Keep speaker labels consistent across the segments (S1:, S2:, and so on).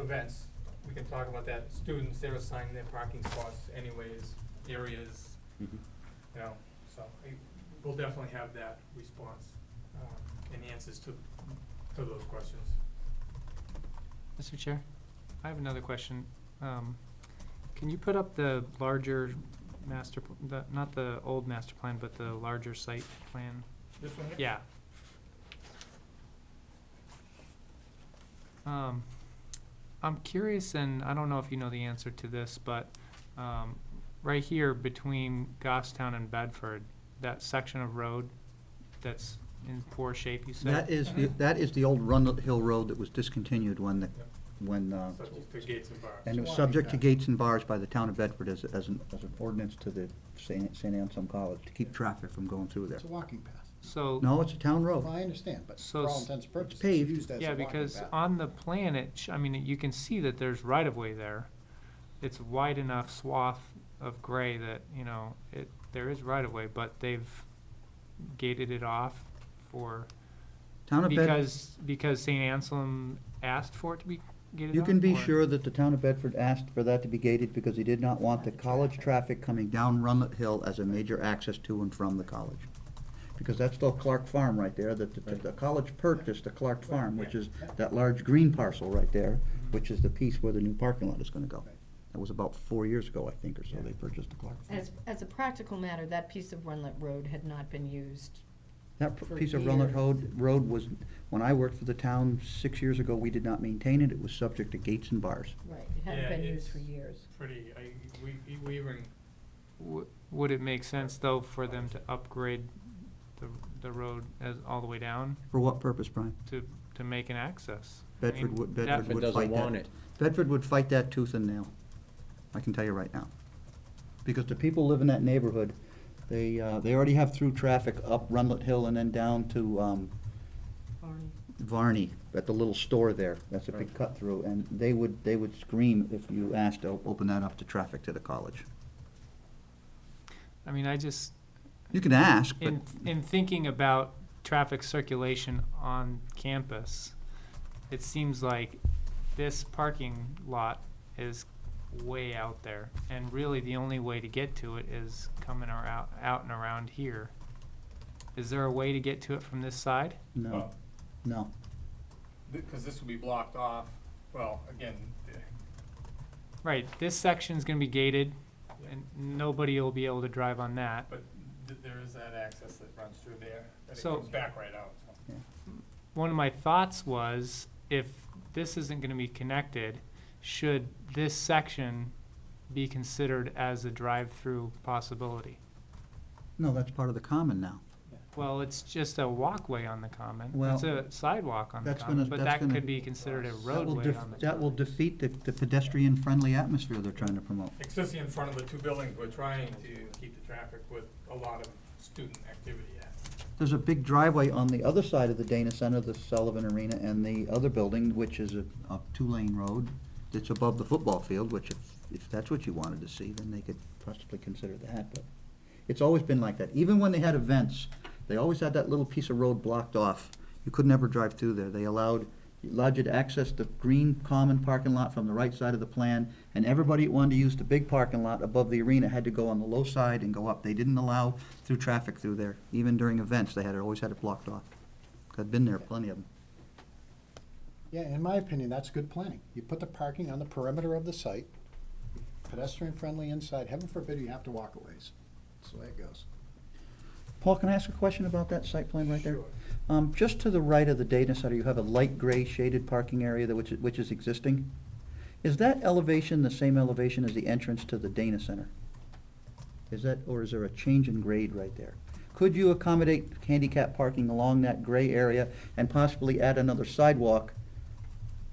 S1: events, we can talk about that, students, they're assigned their parking spots anyways, areas,
S2: Mhm.
S1: you know, so I- we'll definitely have that response, uh, and answers to, to those questions.
S3: Mr. Chair, I have another question. Um, Can you put up the larger master, pl- the- not the old master plan, but the larger site plan?
S1: This one here?
S3: Yeah. Um, I'm curious, and I don't know if you know the answer to this, but um, right here between Goffstown and Bedford, that section of road that's in poor shape, you said?
S2: That is, the- that is the old Rundle Hill Road that was discontinued when, the when, uh,
S1: Subject to gates and bars.
S2: and it was subject to gates and bars by the town of Bedford as, as an, as an ordinance to the St. St. Anselm College to keep traffic from going through there.
S4: It's a walking path.
S3: So.
S2: No, it's a town
S4: Well,
S2: road.
S4: I understand, but
S3: So
S4: for all
S3: s-
S4: intents and purposes,
S2: paved.
S4: it's used as a
S3: Yeah,
S4: walking
S3: because
S4: path.
S3: on the plan, it, sh- I mean, you can see that there's right of way there. It's wide enough swath of gray that, you know, it, there is right of way, but they've gated it off for,
S2: Town of Bedford,
S3: because, because St. Anselm asked for it to be gated off?
S2: you can be
S3: or-
S2: sure that the town of Bedford asked for that to be gated because he did not want the college traffic coming down Runlet Hill as a major access to and from the college. Because that's the Clark Farm right there, that the, the college purchased the Clark Farm, which is that large green parcel right there, which is the piece where the new parking lot is gonna go. That was about four years ago, I think, or so, they purchased the Clark Farm.
S5: As, as a practical matter, that piece of Runlet Road had not been used.
S2: That p-
S5: for
S2: piece of Runlet
S5: years.
S2: Road, road was, when I worked for the town six years ago, we did not maintain it, it was subject to gates and bars.
S5: Right. It hadn't
S1: Yeah,
S5: been used for
S1: it's-
S5: years.
S1: Pretty, I, we, we even,
S3: W- Would it make sense, though, for them to upgrade the, the road as, all the way down
S2: For what purpose, Brian?
S3: to, to make an access? I mean,
S2: Bedford would,
S3: that-
S2: Bedford would fight that. Bedford would fight that tooth and nail. I can tell you right now. Because the people live in that neighborhood, they, uh, they already have through traffic up Runlet Hill and then down to, um,
S5: Barney.
S2: Varney, at the little store there. That's a big cut through, and they would, they would scream if you asked to op- open that up to traffic to the college.
S3: I mean, I just,
S2: You can ask, but,
S3: in, in thinking about traffic circulation on campus, it seems like this parking lot is way out there. And really, the only way to get to it is coming around, out and around here. Is there a way to get to it from this side?
S2: no, no.
S1: because this will be blocked off, well, again, the-
S3: Right, this section's gonna be gated, and nobody will be able to drive on that.
S1: but th- there is that access that runs through there, and it
S3: So-
S1: comes back right out, so.
S3: one of my thoughts was if this isn't going to be connected, should this section be considered as a drive-through possibility?
S2: No, that's part of the common now.
S3: Well, it's just a walkway on the common.
S2: Well,
S3: it's a sidewalk on the
S2: that's
S3: common,
S2: gonna-
S3: but
S2: that's
S3: that
S2: gonna-
S3: could be considered a
S2: That will
S3: roadway
S2: def-
S3: on the
S2: That will defeat the, the pedestrian-friendly atmosphere they're trying to promote.
S1: Especially in front of the two buildings, we're trying to keep the traffic with a lot of student activity at.
S2: There's a big driveway on the other side of the Dana Center, the Sullivan Arena, and the other building, which is a, a two-lane road that's above the football field, which if, if that's what you wanted to see, then they could possibly consider that, but it's always been like that. Even when they had events, they always had that little piece of road blocked off. You could never drive through there. They allowed, allowed you to access the green common parking lot from the right side of the plan, and everybody that wanted to use the big parking lot above the arena had to go on the low side and go up. They didn't allow through traffic through there, even during events, they had, it always had it blocked off. I've been there, plenty of them.
S4: Yeah, in my opinion, that's good planning. You put the parking on the perimeter of the site, pedestrian-friendly inside, heaven forbid you have to walk a ways. That's the way it goes.
S2: Paul, can I ask a question about that site plan right there?
S1: Sure.
S2: Um, just to the right of the data center, you have a light gray shaded parking area that which, which is existing. Is that elevation the same elevation as the entrance to the Dana Center? Is that, or is there a change in grade right there? Could you accommodate handicap parking along that gray area and possibly add another sidewalk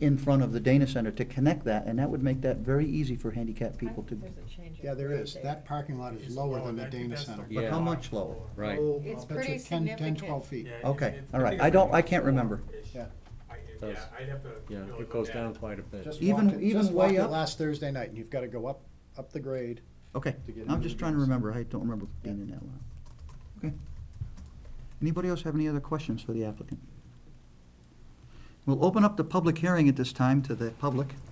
S2: in front of the Dana Center to connect that? And that would make that very easy for handicapped people to.
S5: There's a change. in
S4: Yeah, there
S5: grade
S4: is. That parking lot is lower than the
S1: That-
S4: Dana
S1: that's the
S4: Center.
S2: But how
S1: block
S2: much lower?
S1: floor.
S6: Right.
S4: Oh,
S5: It's
S4: I'll bet you
S5: pretty
S4: 10 10, 12
S5: significant.
S4: feet.
S1: Yeah, it-
S2: Okay,
S1: it's
S2: all right.
S1: bigger
S2: I don't-
S1: than
S2: I can't remember.
S1: four-ish.
S4: Yeah.
S1: I, yeah,
S6: Does.
S1: I'd have to
S6: Yeah,
S1: really look at
S6: it goes down quite a bit.
S4: Just
S2: Even-
S4: walked it-
S2: even
S4: just walked
S2: way
S4: it
S2: up?
S4: Last Thursday night, and you've got to go up, up the grade.
S2: Okay,
S4: to get
S2: I'm
S4: into
S2: just
S4: the
S2: trying to
S4: games.
S2: remember, I don't remember being in that line. Okay. Anybody else have any other questions for the applicant? We'll open up the public hearing at this time to the public.